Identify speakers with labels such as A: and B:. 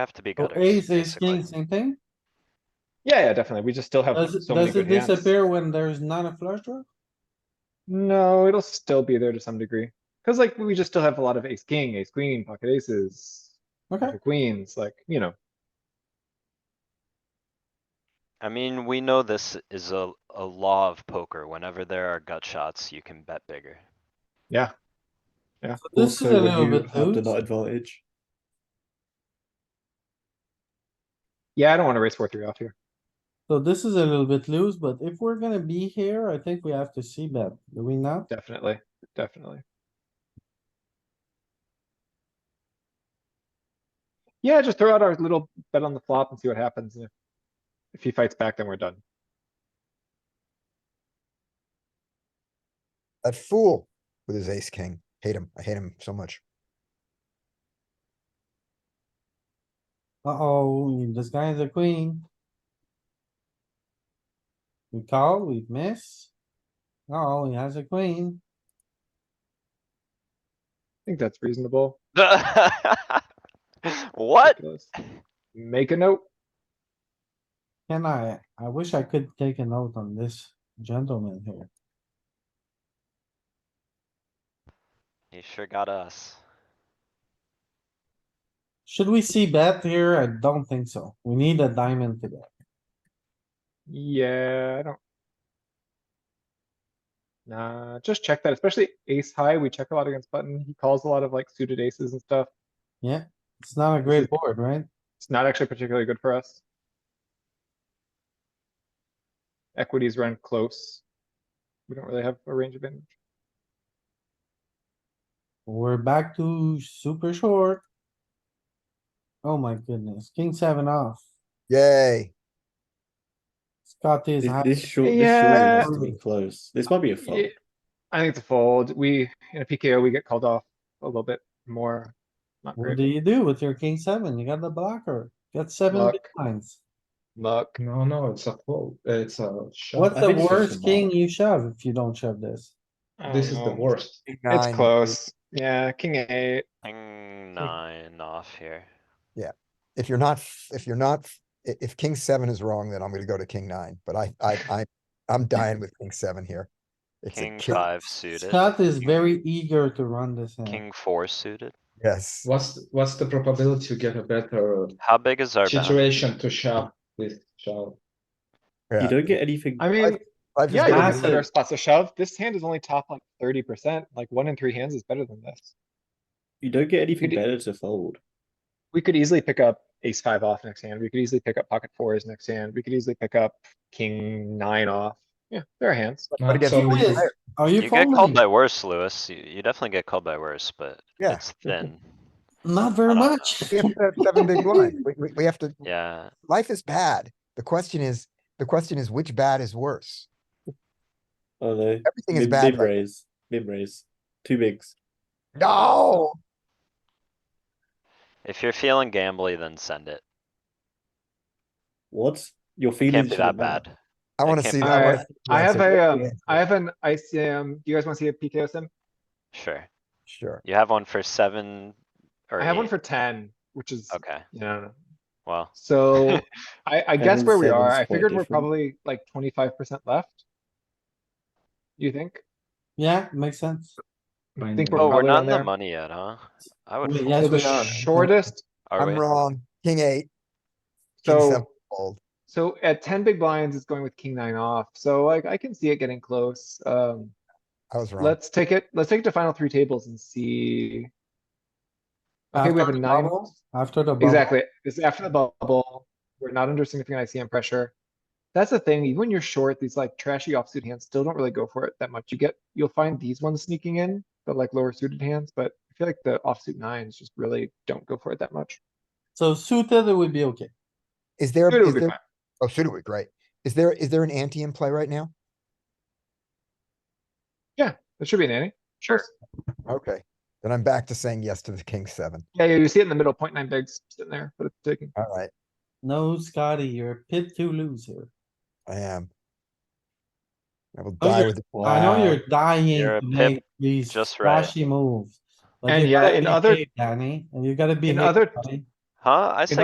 A: Have to be
B: So
A: gutters,
B: ace, ace,
A: basically.
B: king, same thing?
C: Yeah, yeah, definitely. We just still have
B: Does,
C: so
B: it-
C: many
B: does it
C: good hands.
B: disappear when there's not a flush draw?
C: No, it'll still be there to some degree. Cause like we just still have a lot of ace, king, ace, queen, pocket aces,
B: Okay,
C: pocket queens, like, you know,
A: I mean, we know this is a, a law of poker. Whenever there are gut shots, you can bet bigger.
C: yeah. Yeah,
B: so this is
D: Also,
B: a
D: when
B: little
D: you
B: bit
D: have the
B: loose.
D: nut advantage.
C: yeah, I don't wanna raise four, three off here.
B: So this is a little bit loose, but if we're gonna be here, I think we have to see bet, do we not?
C: Definitely, definitely. Yeah, just throw out our little bet on the flop and see what happens. and if- If he fights back, then we're done.
E: That fool with his ace king. Hate him. I hate him so much.
B: Uh-oh, this guy is a queen. We call, we miss. Oh, he has a queen.
C: I think that's reasonable.
A: What?
C: Ridiculous. Make a note.
B: Can I, I wish I could take a note on this gentleman here.
A: He sure got us.
B: Should we see bet here? I don't think so. We need a diamond to bet.
C: Yeah, I don't. Nah, just check that, especially ace high. We check a lot against button. He calls a lot of like suited aces and stuff.
B: It's not a great board, right?
C: It's not actually particularly good for us. Equities run close. We don't really have a range advantage.
B: We're back to super short. Oh my goodness, king seven off.
E: Yay.
B: Scotty is
D: This,
B: happy.
D: this short, this
C: Yeah.
D: short has to be close. This might be a fold.
C: Yeah, I think it's a fold. We, in a PKO, we get called off a little bit more. Not
B: What
C: great.
B: do you do with your king seven? You got the blocker, got seven
C: Luck.
B: big blinds.
C: Luck.
F: No, no, it's a fold. uh, It's a shove.
B: What's
D: I
B: the
D: think it's just a
B: worst king you shove if you don't shove this?
C: I don't
F: This is the
C: know.
F: worst.
C: It's close. Yeah, king eight.
A: King nine off here.
E: If you're not, f- if you're not, f- i- if king seven is wrong, then I'm gonna go to king nine, but I, I, I, I'm dying with king seven here. It's a
A: King
E: kill-
A: five suited.
B: Scott is
A: King-
B: very eager to run this hand.
A: King four suited.
E: Yes,
F: What's, what's the probability to get a better
A: How big is our bounty?
F: situation to shove with shove?
E: Yeah.
D: You don't get anything.
C: I mean,
E: I've
C: yeah,
E: just
C: you
B: got
C: can
B: it.
C: consider our spots to shove. This hand is only top like thirty percent. Like one in three hands is better than this.
D: you don't get anything
C: Could-
D: better to fold.
C: We could easily pick up ace five off next hand. We could easily pick up pocket fours next hand. We could easily pick up king nine off. Yeah, there are hands.
F: Not
E: again,
F: so
B: Who
F: many.
B: is? Are you
A: You get called
B: folding?
A: by worse, Lewis. You, you definitely get called by worse, but
E: Yeah.
A: it's thin.
B: Not very
A: I don't know.
B: much.
E: we have to have seven big blind. We, we, we have to,
A: Yeah,
E: life is bad. The question is, the question is which bad is worse?
D: Oh no.
E: Everything is
D: Mid,
E: bad.
D: mid
E: right-
D: raise. Mid raise. Two bigs.
E: No,
A: if you're feeling gambly, then send it.
D: What? Your
A: Can't
D: feelings
A: be that
D: shouldn't matter.
A: bad.
E: I wanna
A: can't
E: see
A: be
E: that.
C: bad.
E: one.
C: I
E: That's
C: have a, um,
E: good
C: I
E: answer.
C: have an ICM. Do you guys want to see a PKO sim?
A: Sure.
E: Sure.
A: You have one for seven or
C: I have one
A: eight.
C: for ten, which is,
A: Okay,
C: you know,
A: well,
C: so I, I guess
D: and
C: where we
D: seven's
C: are, I
D: quite
C: figured we're
D: different.
C: probably like twenty-five percent left. You think?
B: Yeah, makes sense.
C: I think
A: oh, we're
C: probably
A: not
C: on
A: in the
C: there.
A: money yet, huh? I would,
B: We-
A: fold.
B: yes,
C: So the
B: we
E: uh,
B: are.
C: shortest,
A: are
E: I'm
A: we?
E: wrong. King eight, king seven
C: so,
E: fold.
C: so at ten big blinds, it's going with king nine off, so like I can see it getting close. Um,
E: I was wrong.
C: let's take it, let's take it to final three tables and see. Okay, we
B: After
C: have a
B: the
C: nine,
B: bubble, After the bubble.
C: exactly, this is after the bubble, we're not under significant ICM pressure. That's the thing, even when you're short, these like trashy offsuit hands still don't really go for it that much. You get, you'll find these ones sneaking in, but like lower suited hands, but I feel like the offsuit nines just really don't go for it that much.
B: So suited, it would be okay.
E: Is there,
C: Suited
E: is
C: would be
E: there,
C: fine.
E: oh, suited would be great. Is there, is there an ante in play right now?
C: That should be an ante. Sure.
E: Okay, then I'm back to saying yes to the king seven.
C: Yeah, yeah, you see it in the middle, point nine bigs sitting there, but it's taking.
E: Alright,
B: No, Scotty, you're a pit to lose here.
E: I am. I will
B: Oh,
E: die
B: you're-
E: with, it.
B: I know you're dying
A: You're a
B: to make
A: pip
B: these
A: just right.
B: flashy moves. but
C: And
B: you
C: yeah,
B: gotta
C: in
B: be
C: other-
B: big, Danny, and you gotta be.
C: in other-
A: Huh? I said